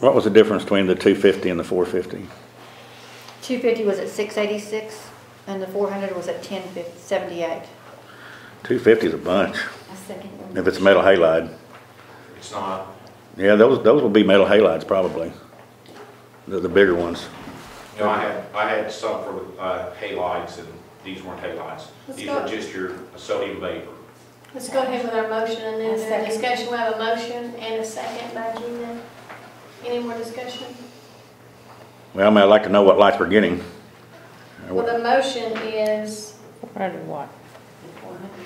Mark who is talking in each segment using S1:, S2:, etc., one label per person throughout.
S1: What was the difference between the two fifty and the four fifty?
S2: Two fifty was at six eighty-six, and the four hundred was at ten seventy-eight.
S1: Two fifty's a bunch,
S2: I second
S1: if it's metal halide.
S3: It's not,
S1: Yeah, those, those will be metal halides probably, the, the bigger ones.
S3: no, I had, I had some for, uh, halides and these weren't halides.
S4: Let's
S3: These were
S4: go.
S3: just your sodium vapor.
S4: Let's go ahead with our motion and
S2: A
S4: then
S2: second.
S4: the discussion. We have a motion and a second by Gina. Any more discussion?
S1: Well, I mean, I'd like to know what lights we're getting.
S4: Well, the motion is
S5: Hundred what?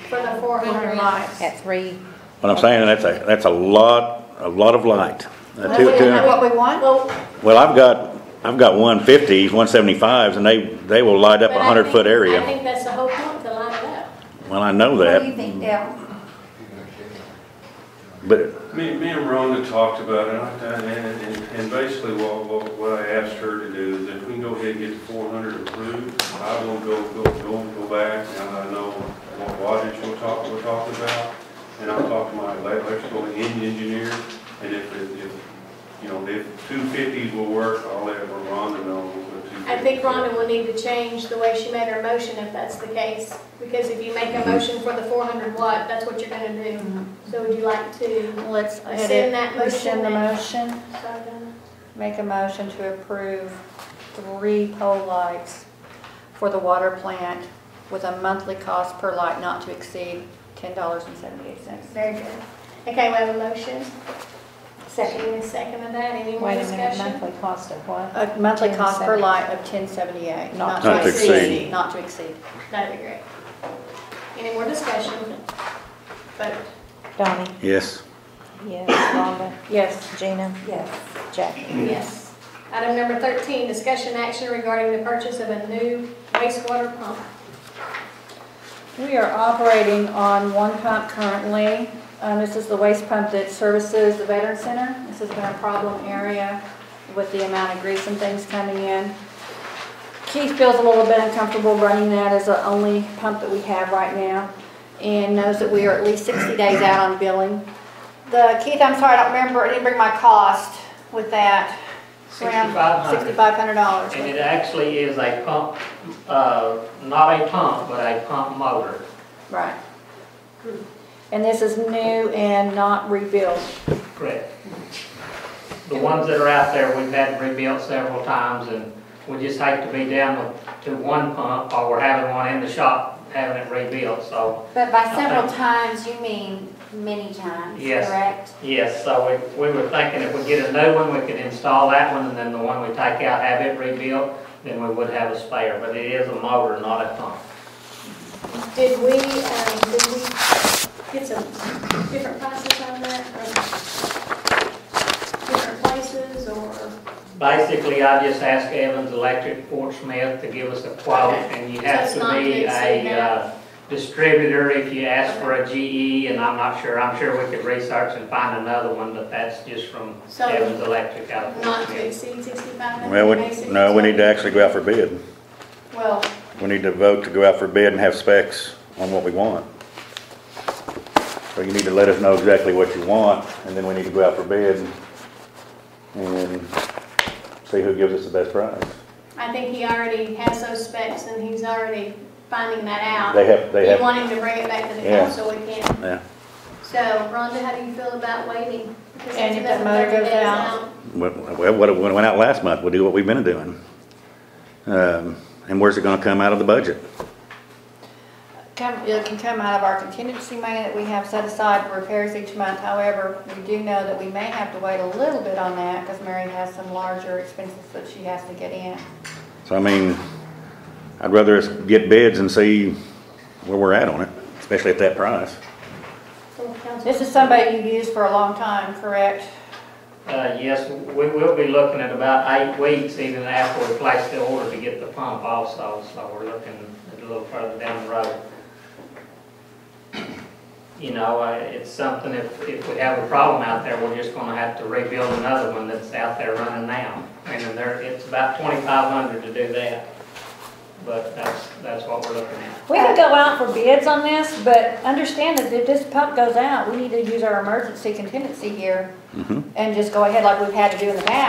S4: for the four hundred lights.
S5: At three?
S1: What I'm saying, that's a, that's a lot, a lot of light. Uh,
S2: Well,
S1: two-
S2: we don't
S1: two-
S2: know what we want.
S4: Well,
S1: Well, I've got, I've got one fifties, one seventy-fives, and they, they will light up
S4: but
S1: a
S4: I
S1: hundred
S4: think-
S1: foot
S4: I
S1: area.
S4: think that's the whole point, to line it up.
S1: Well, I know
S2: What do you
S1: that,
S2: think, Dale?
S1: but
S6: Me, me and Rhonda talked about it, I done- and, and, and basically what, what, what I asked her to do is if we can go ahead and get the four hundred approved, I will go, go, go, go back, and I know what wattage we're talking, we're talking about, and I'll talk to my electrical en- engineer, and if, it- if, you know, if two fifties will work, I'll let Rhonda know.
S4: I think Rhonda will need to change the way she made her motion if that's the case. Because if you make
S1: Mm-hmm.
S4: a motion for the four hundred watt, that's what you're gonna do. So would you like to?
S2: Let's
S4: Rescind
S2: edit,
S4: that
S2: rescind the
S4: motion
S2: motion, make a motion to approve three pole lights for the water plant with a monthly cost per light not to exceed ten dollars and seventy-eight cents.
S4: Very good. Okay, we have a motion. Second. and a second of that, any more
S5: Wait a minute,
S4: discussion?
S5: monthly cost of what?
S2: A monthly
S5: Ten
S2: cost per
S5: seventy.
S2: light of ten seventy-eight, not
S1: Not
S2: to
S1: to
S2: exceed,
S1: exceed.
S2: not to exceed.
S4: That'd be great. Any more discussion? Vote.
S5: Donnie?
S1: yes,
S5: Yes. Rhonda?
S2: Yes.
S5: Gina?
S2: Yes.
S5: Jackie?
S4: yes. Item number 13, discussion action regarding the purchase of a new wastewater pump.
S2: We are operating on one pump currently. Um, This is the waste pump that services the Veteran Center. This has been a problem area with the amount of grease and things coming in. Keith feels a little bit uncomfortable running that as the only pump that we have right now and knows that we are at least 60 days out on billing. The, Keith, I'm sorry, I don't remember, I didn't bring my cost with that. Around
S7: $6,500.
S2: $6,500.
S7: And it actually is a pump, uh, not a pump, but a pump motor.
S2: Right. And this is new and not rebuilt.
S7: Correct. The ones that are out there, we've had rebuilt several times, and we just hate to be down with, to one pump, or we're having one in the shop, having it rebuilt, so,
S8: But by
S7: Okay.
S8: several times, you mean many times,
S7: Yes.
S8: correct?
S7: yes, so we, we were thinking if we get a new one, we could install that one, and then the one we take out, have it rebuilt, then we would have a spare, but it is a motor, not a pump.
S4: Did we, um, did we get some different prices on that? or Different places or?
S7: Basically, I just asked Evans Electric Fort Smith to give us a quote, and you have
S4: So it's
S7: to
S4: not to
S7: be
S4: exceed
S7: a
S4: that?
S7: uh, distributor if you ask for a GE, and I'm not sure, I'm sure we could research and find another one, but that's just from
S4: So-
S7: Evans Electric out of Fort
S4: Not to
S7: Smith.
S4: exceed sixty-five hundred?
S1: well, we, no, we need to actually go out for bid.
S4: Well,
S1: We need to vote to go out for bid and have specs on what we want. So you need to let us know exactly what you want, and then we need to go out for bid and see who gives us the best price.
S4: I think he already has those specs and he's already finding that out.
S1: They have, they
S4: You
S1: have,
S4: want him to bring it back to the
S1: Yeah.
S4: council, we can't.
S1: yeah,
S4: So Rhonda, how do you feel about waiting? Because
S2: And
S4: it's
S2: if that
S4: another
S2: motor
S4: 30
S2: goes
S4: days
S2: out?
S1: well, well, what, what went out last month, we'll do what we've been doing. Um, and where's it gonna come out of the budget?
S2: Come, it can come out of our contingency money that we have set aside for repairs each month. However, we do know that we may have to wait a little bit on that because Mary has some larger expenses that she has to get in.
S1: So I mean, I'd rather us get bids and see where we're at on it, especially at that price.
S4: From the council.
S2: This is somebody you've used for a long time, correct?
S7: Uh, Yes, we will be looking at about eight weeks even after we place the order to get the pump also, so we're looking a little further down the road. You know, uh, it's something, if, if we have a problem out there, we're just gonna have to rebuild another one that's out there running now. And then there, it's about twenty-five hundred to do that, but that's, that's what we're looking at.
S2: We can go out for bids on this, but understand that if this pump goes out, we need to use our emergency contingency here
S1: Mhm.
S2: and just go ahead like we've had to do in the past